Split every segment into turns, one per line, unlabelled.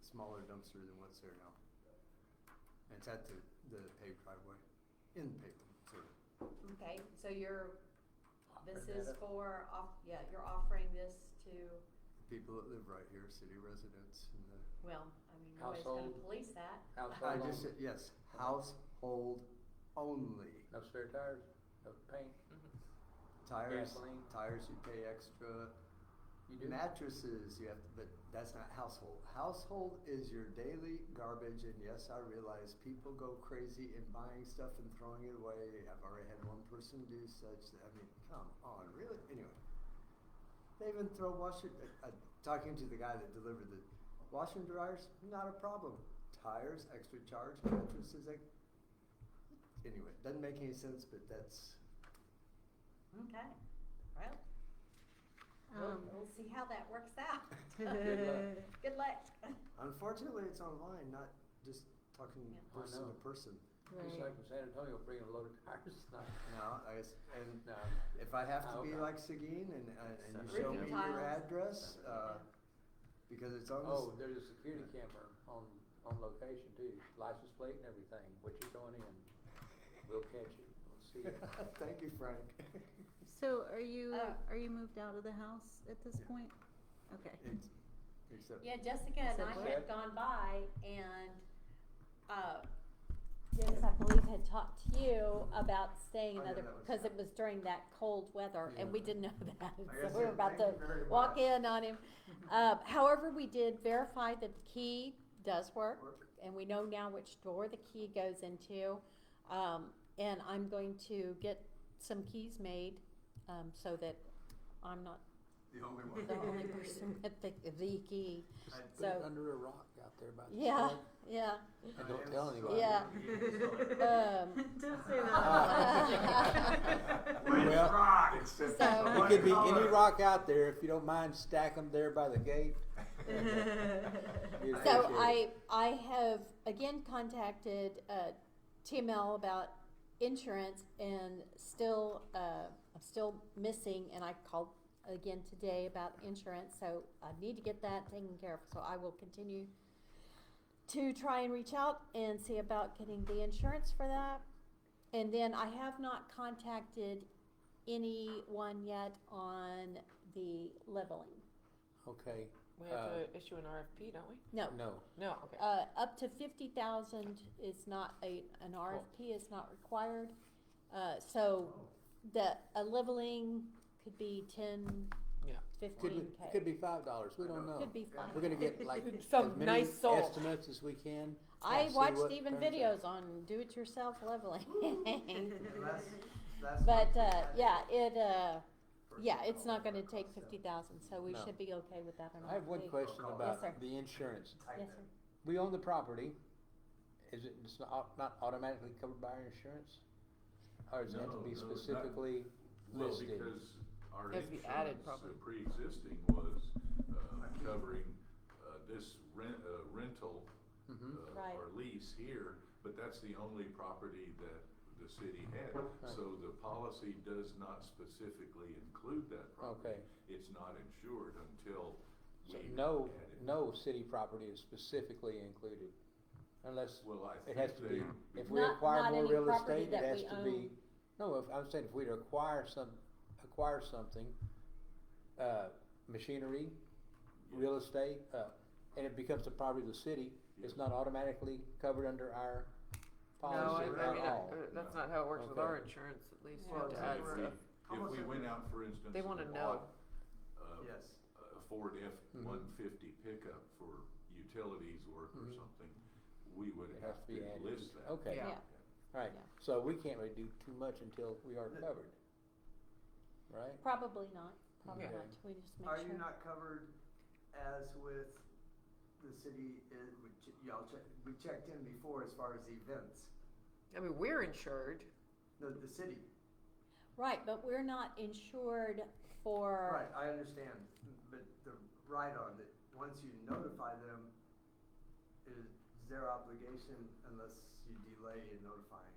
smaller dumpster than what's there now. And it's at the, the paved driveway, in the paved, sorry.
Okay, so you're, this
Offering
is
that up.
for, off- yeah, you're offering this to,
people that live right here, city residents and the,
well, I mean, nobody's gonna
Household.
police that.
I
Household
just,
only,
said yes, household only.
no spare tires, no paint,
Tires,
Gasoline.
tires you pay extra.
you do?
Mattresses, you have to, but that's not household. Household is your daily garbage, and yes, I realize people go crazy in buying stuff and throwing it away. I've already had one person do such. I mean, come on, really? Anyway, they even throw washer. Uh, uh, talking to the guy that delivered the washer and dryers, not a problem. Tires, extra charge. Mattresses, like anyway, doesn't make any sense, but that's
Okay, well, we'll,
Um,
we'll see how that works out.
Oh. Good luck.
Good luck.
unfortunately it's online, not just talking
Yeah.
I
person to
know.
person.
Just
right.
like in San Antonio, bringing a load of tires, not,
No, I s and
no.
if I have to
Oh,
be
God.
like Seguin and, uh, and you show
Separate.
me
Ripping
your
tiles.
address,
Separate.
uh, because it's on this,
Oh, there's a security camera on, on location too, license plate and everything, what you're going in, we'll catch you, we'll see you.
thank you, Frank.
So are you,
Oh.
are you moved out of the house at this
Yeah.
point? Okay.
It's- Except,
Yeah, Jessica and
Said
I
what?
had gone by and, uh, Dennis, I believe had talked to you about staying
Oh, yeah,
another,
that was-
cause it was during that cold weather and we
Yeah.
didn't know that,
I
so
guess
we were
it-
about to
thank you very
walk
much.
in on him. Uh, however, we did verify that the key does work,
Work.
and we know now which door the key goes into. Um, and I'm going to get some keys made, um, so that I'm not
The only one.
the only person with the, the key.
Just
I'd
Put it
so-
under a rock out there by the.
Yeah,
plug.
yeah.
And don't tell anybody.
Yeah. Um,
Don't say
that.
Oh. Well,
rock,
it's So- a
It could be any rock out there, if you don't mind, stack them there by the gate.
I
So
appreciate
I, I have again contacted, uh, TML about insurance and still, uh, I'm still missing and I called again today about insurance, so I need to get that taken care of, so I will continue to try and reach out and see about getting the insurance for that. And then I have not contacted anyone yet on the leveling,
Okay,
We have
Uh,
to issue an RFP, don't we?
no.
no,
No, okay.
Uh, up to fifty thousand is not a, an RFP is not required. Uh, so the, a leveling could be ten,
Yeah.
could
fifteen
be, could
K.
be five dollars, we don't know.
Could be
We're
fine.
gonna get like as
Some
many
nice soul.
estimates as we can.
I
and see
watched
what
even
turns out.
videos on do-it-yourself leveling.
That's
But,
what
uh,
we
yeah,
had
it, uh,
for
yeah,
the
it's not
call.
gonna take fifty thousand, so we
No.
should be okay with that on
I have one
RFP.
question
Yes,
about
sir.
the insurance.
I
Yes,
know.
sir.
We own the property, is it, it's not, not automatically covered by our insurance? Or is it meant
No,
to be
no, that-
specifically
Well,
listed?
because our
Has to be added,
insurance,
probably.
uh, pre-existing was, uh, covering, uh, this rent, uh, rental,
Mhm.
uh,
Right.
or lease here, but that's the only property that the city had. So the policy does not specifically include that property.
Okay.
It's not insured until we
So
add it.
no, no city property is specifically included, unless
Well, I
It has
think
to be,
they.
if we
Not-
acquire
not
more
any
real
property
estate, it
that
has
we
to be,
own.
no, if, I'm saying if we'd acquire some, acquire something, uh, machinery, real estate, uh, and it becomes the property of the city, it's
Yes.
not automatically covered under our policy
I- I
at
mean,
all.
uh, that's
that's
No.
not how it works with our
Okay.
insurance, at least,
you
you
Well,
have
have
to
to add
add
it's-
stuff.
stuff.
If we went out, for instance.
They wanna
and
know.
bought, uh,
Yes.
a Ford
Hmm.
F-150 pickup for utilities work or
Mhm.
something, we would
It has
have
to
to
be added. Oh.
list that.
Okay,
Yeah.
Yeah.
alright,
Yeah.
so we can't really do too much until we are covered, right?
Probably not, probably
Okay.
not, we just make
Are
sure.
you not covered as with the city, uh, we ch- y'all check, we checked in before as far as the events,
I mean, we're insured,
the, the city,
Right, but we're not insured for,
right, I understand, but the right on that, once you notify them, it is their obligation unless you delay in notifying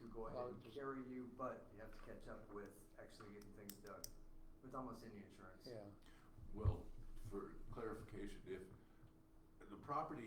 to go ahead
Well,
and
just-
carry you, but you have to catch up with actually getting things done, with almost any insurance.
Yeah.
Well, for clarification, if the property